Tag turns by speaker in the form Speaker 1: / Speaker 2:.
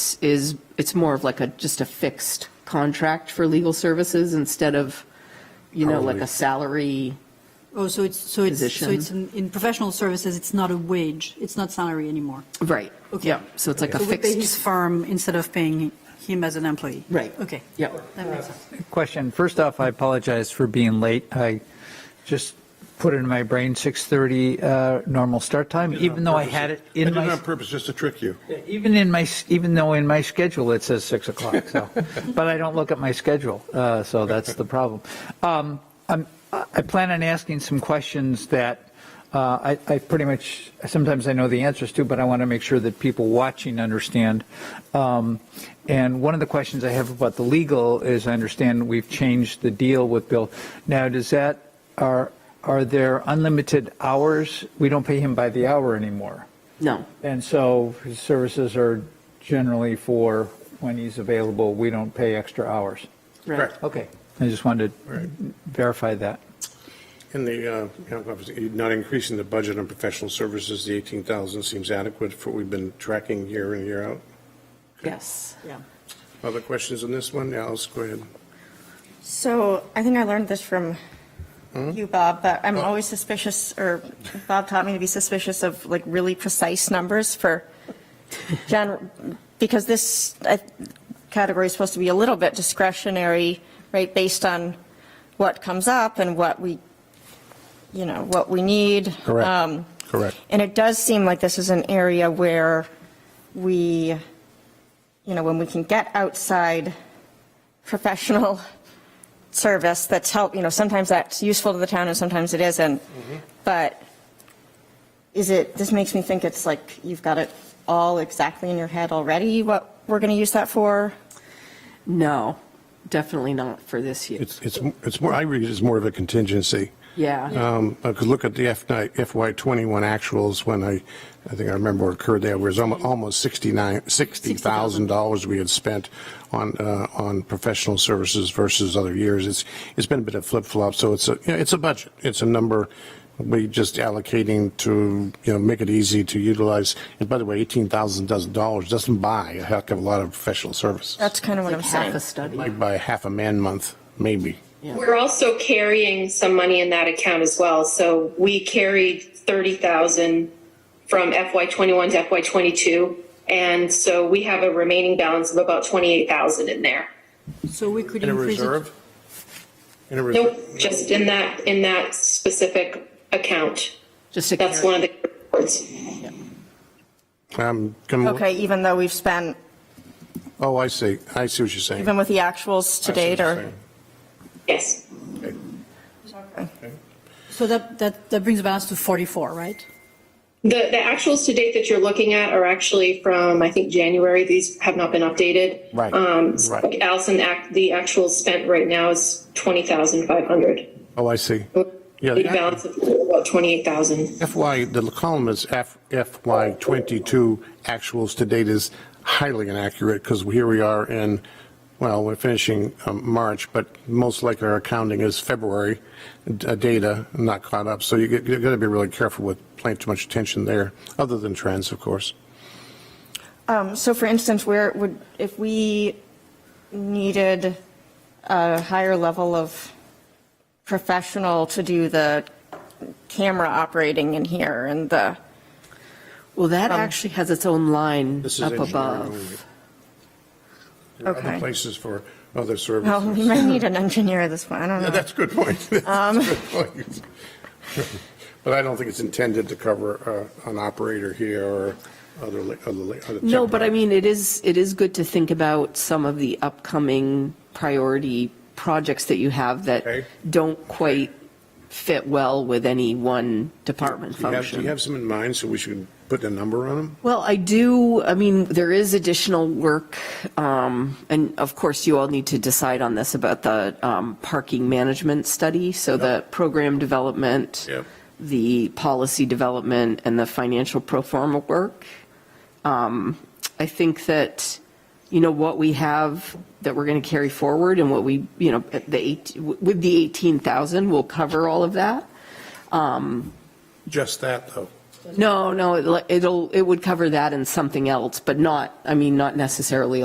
Speaker 1: is, it's more of like a, just a fixed contract for legal services instead of, you know, like
Speaker 2: Hourly.
Speaker 1: a salary.
Speaker 3: Oh, so it's, so it's, so
Speaker 1: Position.
Speaker 3: it's in in professional services, it's not a wage, it's not salary anymore.
Speaker 1: Right.
Speaker 3: Okay.
Speaker 1: Yeah, so it's like a
Speaker 3: So we pay his
Speaker 1: fixed,
Speaker 3: firm instead of paying him as an employee.
Speaker 1: right.
Speaker 3: Okay.
Speaker 1: Yeah.
Speaker 3: That makes sense.
Speaker 4: Question. First off, I apologize for being late. I just put it in my brain 6:30 uh, normal start time, even though I had it in
Speaker 2: I did it
Speaker 4: my,
Speaker 2: on purpose, just to trick you.
Speaker 4: even in my, even though in my schedule it says 6 o'clock, so, but I don't look at my schedule, uh, so that's the problem. Um, I'm- I I plan on asking some questions that uh, I I pretty much, sometimes I know the answers to, but I want to make sure that people watching understand. Um, And one of the questions I have about the legal is, I understand we've changed the deal with Bill. Now, does that, are, are there unlimited hours? We don't pay him by the hour anymore.
Speaker 1: No,
Speaker 4: And so his services are generally for when he's available, we don't pay extra hours.
Speaker 1: right.
Speaker 4: Okay. I just wanted
Speaker 2: Right.
Speaker 4: to verify that.
Speaker 2: And the, uh, you know, obviously, not increasing the budget on professional services, the 18,000 seems adequate for what we've been tracking year in, year out.
Speaker 1: Yes.
Speaker 3: Yeah.
Speaker 2: Other questions on this one? Alice, go ahead.
Speaker 5: So I think I learned this from
Speaker 2: Hmm?
Speaker 5: you, Bob, but I'm always suspicious, or Bob taught me to be suspicious of like really precise numbers for gen, because this uh, category is supposed to be a little bit discretionary, right, based on what comes up and what we, you know, what we need. Um,
Speaker 2: correct.
Speaker 5: And it does seem like this is an area where we, you know, when we can get outside professional service that's help, you know, sometimes that's useful to the town and sometimes it isn't. But is it, this makes me think it's like you've got it all exactly in your head already, what we're going to use that for?
Speaker 1: No, definitely not for this year.
Speaker 2: It's, it's, it's more, I read it as more of a contingency.
Speaker 1: Yeah,
Speaker 2: Um, I could look at the FY '21 actuals when I, I think I remember what occurred there, was almo- almost 69, $60,000 we had spent on, uh, on professional services versus other years. It's, it's been a bit of flip-flop, so it's a, you know, it's a budget. It's a number we just allocating to, you know, make it easy to utilize. And by the way, $18,000 doesn't buy a heck of a lot of professional services.
Speaker 5: That's kind of what I'm
Speaker 1: half
Speaker 5: saying.
Speaker 1: a study.
Speaker 2: Might buy half a man-month, maybe.
Speaker 6: We're also carrying some money in that account as well. So we carried 30,000 from FY '21 to FY '22. And so we have a remaining balance of about 28,000 in there.
Speaker 3: So we could
Speaker 2: In a
Speaker 3: increase it.
Speaker 2: reserve? In a reserve?
Speaker 6: Nope, just in that, in that specific account.
Speaker 1: Just to
Speaker 6: That's
Speaker 1: carry-
Speaker 6: one of the reports.
Speaker 2: I'm gonna-
Speaker 5: Okay, even though we've spent,
Speaker 2: Um, Oh, I see. I see what you're saying.
Speaker 5: even with the actuals
Speaker 2: I
Speaker 5: to
Speaker 2: see what
Speaker 5: date,
Speaker 2: you're
Speaker 5: or?
Speaker 2: saying.
Speaker 6: Yes.
Speaker 3: So that, that, that brings a balance to 44, right?
Speaker 6: The, the actuals to date that you're looking at are actually from, I think, January. These have not been updated.
Speaker 2: Right,
Speaker 6: Um, so
Speaker 2: right.
Speaker 6: Allison, act- the actual spent right now is 20,500.
Speaker 2: Oh, I see. Yeah,
Speaker 6: The balance
Speaker 2: the
Speaker 6: of about 28,000.
Speaker 2: FY, the column is F- FY '22 actuals to date is highly inaccurate because here we are in, well, we're finishing um, March, but most likely our accounting is February uh, data, not caught up. So you get- you're going to be really careful with paying too much attention there, other than trends, of course.
Speaker 5: Um, So for instance, where would, if we needed a higher level of professional to do the camera operating in here and the,
Speaker 1: Well, that actually has its own line
Speaker 2: This is
Speaker 1: up
Speaker 2: engineering
Speaker 1: above.
Speaker 2: only. There are Other
Speaker 5: Okay.
Speaker 2: places for other services.
Speaker 5: well, Oh, we might need an engineer this one, I don't
Speaker 2: Yeah,
Speaker 5: know.
Speaker 2: that's a good point.
Speaker 1: Um,
Speaker 2: That's a good point. But I don't think it's intended to cover uh, an operator here or other, li- other. li- other
Speaker 1: No, but I
Speaker 2: temporary-
Speaker 1: mean, it is, it is good to think about some of the upcoming priority projects that you have
Speaker 2: Okay.
Speaker 1: that don't quite fit well with any one department
Speaker 2: Do you have- do you
Speaker 1: function.
Speaker 2: have some in mind, so we should put a number on them?
Speaker 1: Well, I do, I mean, there is additional work, um, and of course, you all need to decide on this about the um, parking management study, so the program development,
Speaker 2: Yep.
Speaker 1: the policy development, and the financial pro forma work. Um, I think that, you know, what we have that we're going to carry forward and what we, you know, at the eight, with the 18,000, will cover all of that.
Speaker 2: Just that, though.
Speaker 1: No, no, it'll- it'll, it would cover that and something else, but not, I mean, not necessarily